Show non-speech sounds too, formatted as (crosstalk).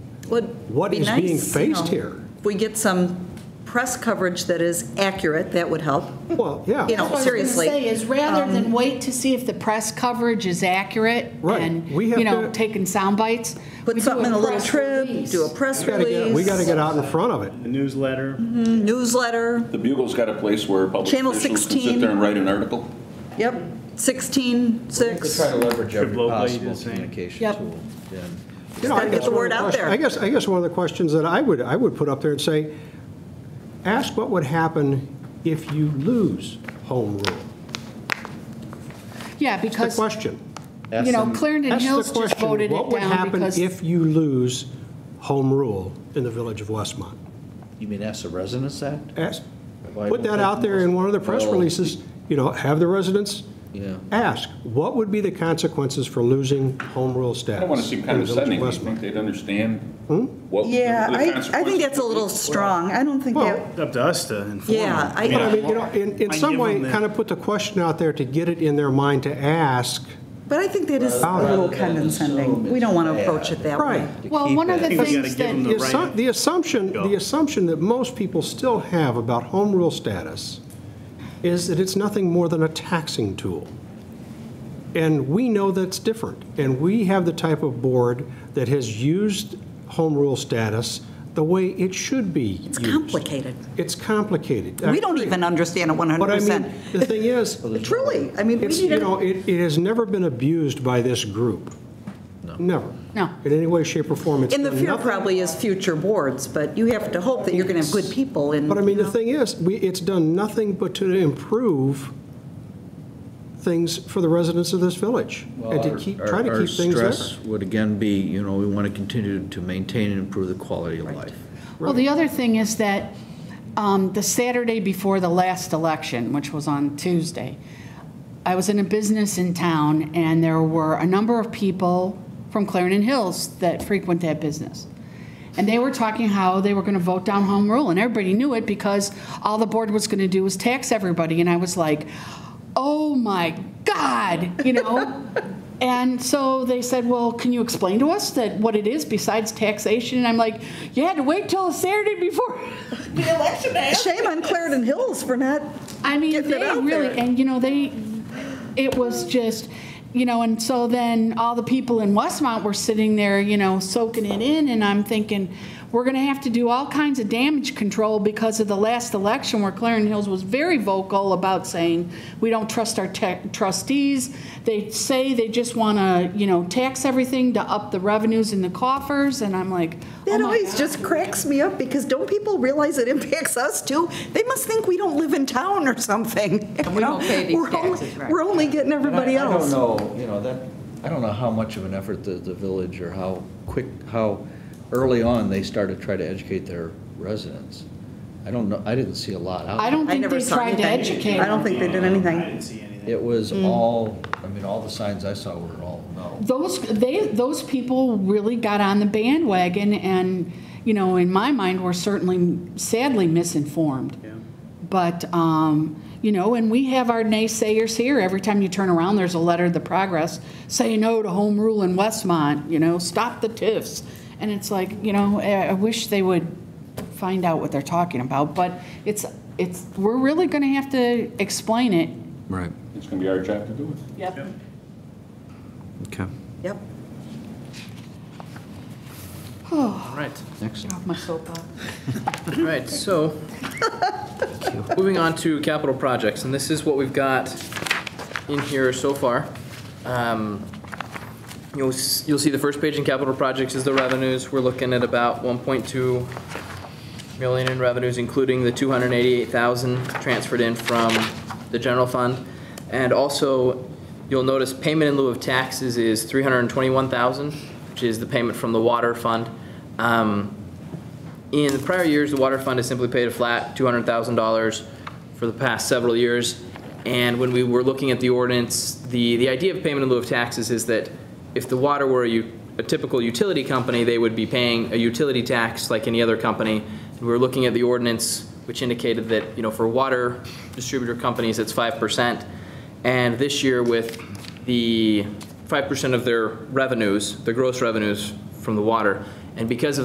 Would what be is being nice, you faced know, here? If we get some press coverage that is accurate, that would help. Well, yeah. You know, seriously. Um, What I was going to say is, rather than wait to see if the press coverage is accurate Right. and, We have you know, to- taking sound bites. we Put do something in a little press trip, release. do a press We gotta get- We got to release, get out in front of it. A newsletter. newsletter, The Bugle's got a place where public Channel officials can 16. sit there and write an article. yep, 16, We're 6. trying to leverage every Should locally possible the same. communication Yep. tool. yeah. You know, Gotta I get guess the one of word out question- there. I guess, I guess one of the questions that I would, I would put up there and say, ask what would happen if you lose home rule. Yeah, The because, question. you know, Ask them- Clarendon That's Hills the just question. voted What it would down happen because. if you lose home rule in the village of Westmont? You mean ask the residents that? Ask, Why put don't that they- out there in one of the press Well- releases, you know, have the residents Yeah. ask, what would be the consequences for losing home rule status? I don't want to seem in the village of condescending, but I Westmont? think they'd understand what. Hmm? Yeah, the I, I think that's a little consequences strong. I don't think Well, that, Up to us to inform. them. Yeah, I- But I mean, you know, in, in I some give way, them that. kind of put the question out there to get it in their mind to ask. but I think that is a Rather little than condescending. assume We don't it's want to approach bad. it that Right. way. To Well, keep one of that- the think we gotta things give them that, The Right. assu- the assumption, Go. the assumption that most people still have about home rule status is that it's nothing more than a taxing tool. And we know that's different. And we have the type of board that has used home rule status the way it should be It's used. complicated. It's complicated. We don't even understand it But I 100%. mean, the thing is, (laughs) Truly, I mean, we It's, need you know, to, it, it has never been abused by this group. No. Never. No. In any way, shape, or form. It's and the done fear nothing- probably is future boards, but you have to hope that you're going to have good people and. But I mean, the thing is, we, it's done nothing but to improve things for the residents of this village. And to Well, keep, our- try to our- keep things Our there. stress would again be, you know, we want to continue to maintain and improve the quality of life. well, the other thing is that um, the Saturday before the last election, which was on Tuesday, I was in a business in town, and there were a number of people from Clarendon Hills that frequent that business. And they were talking how they were going to vote down home rule, and everybody knew it because all the board was going to do was tax everybody. And I was like, oh my God, you know? and so they said, well, can you explain to us that what it is besides taxation? And I'm like, you had to wait till a Saturday before the election. to ask." Shame on Clarendon Hills for not, I mean, Getting they it out really, there. and you know, they, it was just, you know, and so then all the people in Westmont were sitting there, you know, soaking it in, and I'm thinking, we're going to have to do all kinds of damage control because of the last election where Clarendon Hills was very vocal about saying, we don't trust our tech- trustees. They say they just want to, you know, tax everything to up the revenues in the coffers, and I'm like, oh that my always just cracks me up because don't people realize it impacts us too? They must think we don't live in town or something. you we know? don't pay (laughs) these We're only- taxes, right. We're only getting And I- everybody else. I don't know, you know, that, I don't know how much of an effort the, the village or how quick, how early on they started to try to educate their residents. I don't know, I didn't see a lot out. I don't I think never they saw tried to anything. educate I don't them. think they did I anything. didn't see anything. It was Mm. all, I mean, all the signs I saw were all no. those they those people really got on the bandwagon and you know in my mind were certainly sadly misinformed but um, you know and we have our naysayers here every time you turn around there's a letter to the progress say no to home rule in westmont you know stop the tiffs and it's like you know i I wish they would find out what they're talking about but it's it's we're really going to have to explain it Right, It's going to be our job to do it. yep okay. Yep. All right, Next. off my soapbox all right, so, moving on to capital projects, and this is what we've got in here so far. Um, You'll, s- you'll see the first page in capital projects is the revenues. We're looking at about 1.2 million in revenues, including the 288,000 transferred in from the general fund. And also, you'll notice payment in lieu of taxes is 321,000, which is the payment from the water fund. Um, In prior years, the water fund has simply paid a flat $200,000 for the past several years. And when we were looking at the ordinance, the, the idea of payment in lieu of taxes is that if the water were a, u- a typical utility company, they would be paying a utility tax like any other company. And we were looking at the ordinance, which indicated that, you know, for water distributor companies, it's 5%. And this year with the 5% of their revenues, the gross revenues from the water, and because of